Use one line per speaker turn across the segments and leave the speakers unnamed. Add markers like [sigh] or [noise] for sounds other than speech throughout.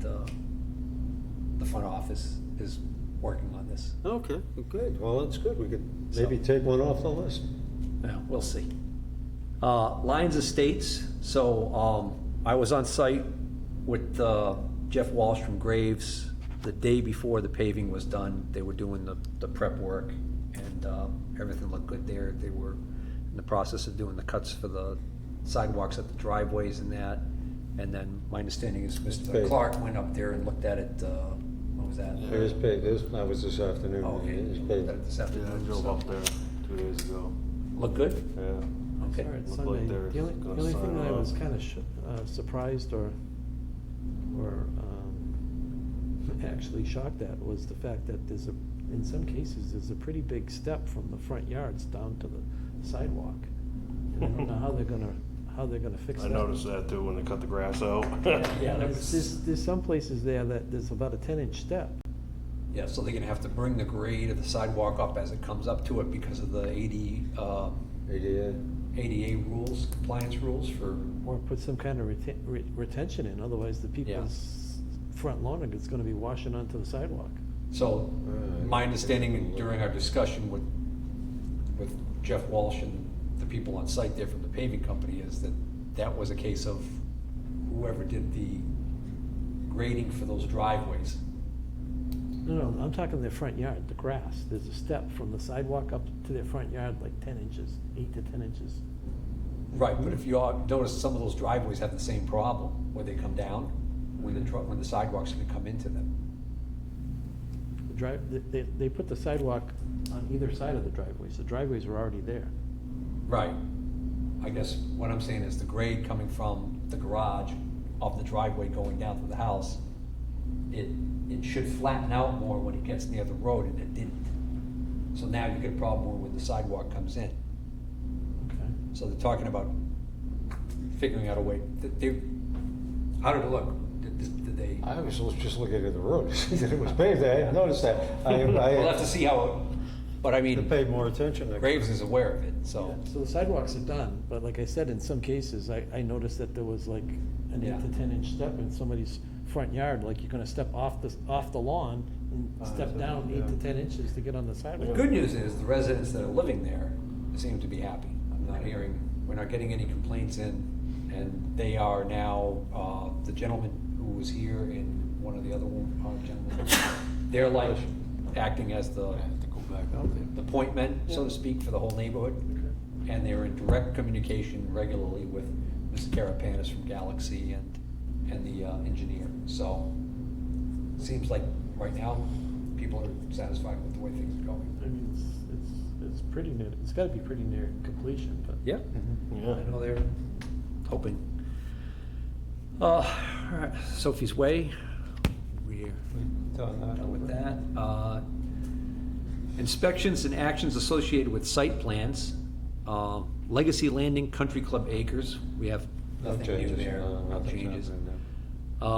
the, uh, the front office is working on this.
Okay,
Good, well, that's good. We could
So-
maybe take one off the list.
Yeah, we'll see. Uh, Lions Estates, so, um, I was on site with, uh, Jeff Walsh from Graves the day before the paving was done. They were doing the, the prep work and, uh, everything looked good there. They were in the process of doing the cuts for the sidewalks at the driveways and that. And then my understanding is Mr.
Paved.
Clark went up there and looked at it, uh, what was that?
It was paid, this, that was this afternoon.
Oh, Okay,
It was
looked at it
paid.
this
Yeah, I
afternoon,
drove
so.
up there two days ago.
Look good?
Yeah.
Okay.
Sorry, it's
Looked like
Sunday.
they were
The only,
gonna
the only
sign
thing that I
off.
was kind of sh- uh, surprised or, or um, [laughs] actually shocked at was the fact that there's a, in some cases, there's a pretty big step from the front yards down to the sidewalk. And I don't know how they're gonna, how they're gonna fix
I
that.
noticed that too when they cut the grass out. [laughs]
Yeah, that
There's, there's- there's some places there that there's about a ten inch step.
Yeah, so they're gonna have to bring the grade of the sidewalk up as it comes up to it because of the AD, uh,
ADA.
ADA rules, compliance rules for,
Or put some kind of reten- re- retention in, otherwise the people's front lawn is gonna be washing onto the sidewalk.
so my understanding during our discussion with, with Jeff Walsh and the people on site there from the paving company is that that was a case of whoever did the grading for those driveways.
No, no, I'm talking their front yard, the grass. There's a step from the sidewalk up to their front yard, like ten inches, eight to ten inches.
Right, but if you all notice, some of those driveways have the same problem, where they come down, when the truck, when the sidewalk's gonna come into them.
The drive, they- they, they put the sidewalk on either side of the driveways. The driveways were already there.
Right. I guess what I'm saying is the grade coming from the garage of the driveway going down to the house, it, it should flatten out more when it gets near the road, and it didn't. So now you get a problem where when the sidewalk comes in.
Okay.
So they're talking about figuring out a way, that they, how did it look? Did, did- did they?
I was just looking at the road, to see that
[laughs]
it was paved, I hadn't noticed that. I,
We'll have to
I
see how, it but I
to
mean,
pay more attention. to-
Graves is aware of it, so.
So the sidewalks are done, but like I said, in some cases, I, I noticed that there was like an
Yeah.
eight to ten inch step in somebody's front yard, like you're gonna step off the, off the lawn
Oh,
and step down eight to ten inches to get on the
The
sidewalk.
good news is the residents that are living there seem to be happy. I'm not hearing, we're not getting any complaints in, and they are now, uh, the gentleman who was here and one of the other one- uh, gentlemen, they're like acting as the,
go back out
the point men, so to speak, for the whole neighborhood. And they're in direct communication regularly with Mr. Carapanis from Galaxy and, and the uh, engineer. So, seems like right now, people are satisfied with the way things are going.
I mean, it's, it's, it's pretty near, it's gotta be pretty near completion, but.
Yeah,
Mm-hmm.
I
Yeah.
know they're hoping. Uh, all right, Sophie's Way, we're
Done that.
done with that. Uh, Inspections and actions associated with site plans. Uh, Legacy Landing Country Club Acres, we have
No
nothing new
changes,
there,
no,
no
nothing's
changes.
happening there.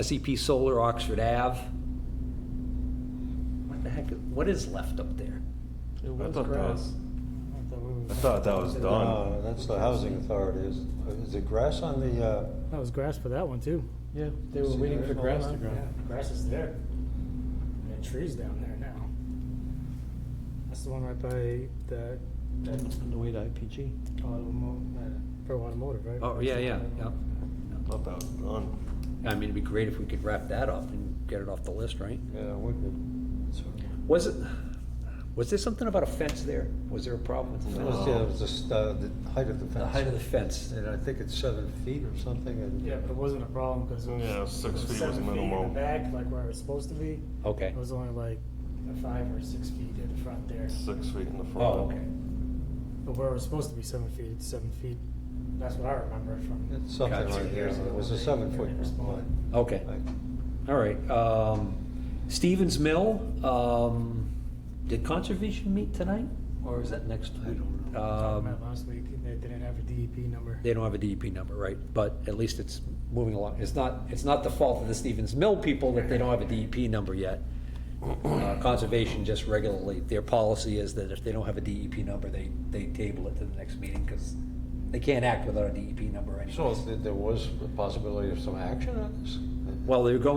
Uh, SEP Solar Oxford Ave. What the heck, what is left up there?
It
I
was
thought that
grass.
was- I thought that was
No,
done.
that's the housing authority. Is, is it grass on the, uh,
That was grass for that one too.
Yeah, they were
See,
waiting
there's
for
no
grass to
line.
grow.
Grass is there. There are trees down there now. That's the one right by the, that
On the way to IPG.
automotive, uh, for automotive, right?
Oh, yeah, yeah, yeah.
I thought that was done.
I mean, it'd be great if we could wrap that up and get it off the list, right?
yeah, Wicked?
Was it, was there something about a fence there? Was there a problem with the
It
fence?
was, yeah, it was just, uh, the height of the fence.
The height of the fence?
And I think it's seven feet or something, and.
Yeah, but it wasn't a problem because it was.
Yeah, six
it
feet was
seven
minimal.
in the back, like where it was supposed to be.
Okay.
It was only like a five or six feet in the front there.
Six feet in the front.
Oh, okay.
But where it was supposed to be seven feet, it's seven feet. That's what I remember from.
It's something
Gotcha.
like that.
Years ago,
It was a
they-
seven
they
foot
never spawned.
line.
Okay, all right. Um, Stevens Mill, um, did conservation meet tonight? Or is that next week?
Talking
Um,
about last week, and they didn't have a DEP number.
They don't have a DEP number, right? But at least it's moving along. It's not, it's not the fault of the Stevens Mill people that they don't have a DEP number yet. Uh, Conservation just regularly, their policy is that if they don't have a DEP number, they, they table it to the next meeting because they can't act without a DEP E number anyway.
So th- there was a possibility of some action on this?
Well, they're going